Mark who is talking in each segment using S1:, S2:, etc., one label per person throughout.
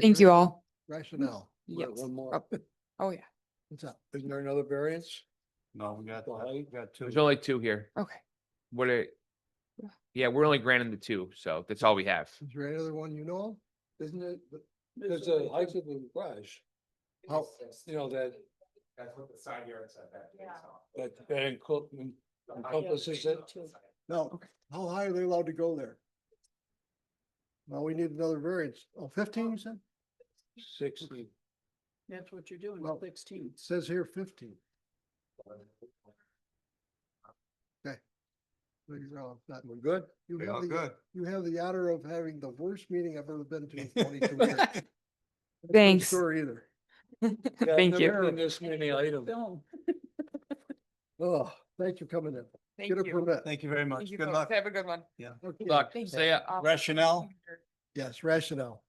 S1: Thank you all.
S2: Rationale. We got
S1: Yes.
S2: One more.
S1: Up. Oh, yeah.
S2: What's up? Isn't there another variance?
S3: No, we got,
S2: The height?
S3: got two.
S4: There's only two here.
S1: Okay.
S4: What are?
S1: Yeah.
S4: Yeah, we're only granting the two, so that's all we have.
S2: Is there another one you know of? Isn't it? There's a height of the garage. How, you know, that,
S3: That's what the side yard setback is on.
S2: that, that encul-
S3: The height of the
S2: encompasses it. No,
S1: Okay.
S2: how high are they allowed to go there? Now we need another variance. Oh, fifteen, you said? Sixteen.
S5: That's what you're doing,
S2: Well,
S5: sixteen.
S2: It says here fifteen. Okay. We're good? You
S3: We
S2: have
S3: all
S2: the-
S3: good.
S2: You have the honor of having the worst meeting I've ever been to in twenty-two years. That's no
S1: Thanks.
S2: Sure either.
S1: Thank you.
S2: This many items.
S5: Film.
S2: Oh, thanks for coming in.
S1: Thank
S2: Get a
S1: you.
S2: permit.
S3: Thank you very much.
S1: Thank you
S3: Good
S1: folks.
S3: luck.
S1: Have a good one.
S2: Okay.
S4: Look,
S1: Thank
S4: say,
S1: you.
S4: uh,
S1: Awesome.
S3: Rationale,
S2: Yes, rationale.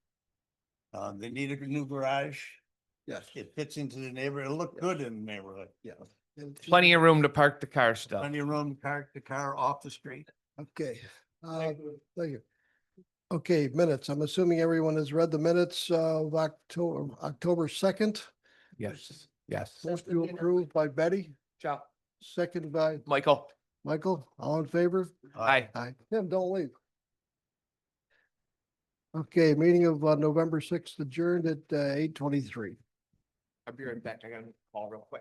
S3: uh, they need a new garage.
S2: Yes.
S3: It fits into the neighborhood. It looked good in the neighborhood.
S2: Yeah. And-
S4: plenty of room to park the car still.
S3: Plenty of room, to park the car off the street.
S2: Okay, uh, thank you. Okay, minutes. I'm assuming everyone has read the minutes uh, of October, October second.
S4: Yes, yes.
S2: Most you approve by Betty,
S4: Ciao.
S2: second by
S4: Michael,
S2: Michael. All in favor?
S4: hi.
S2: Aye. Tim, don't leave. Okay, meeting of uh, November sixth adjourned at uh, eight twenty-three.
S4: I'll be right back. I gotta call real quick.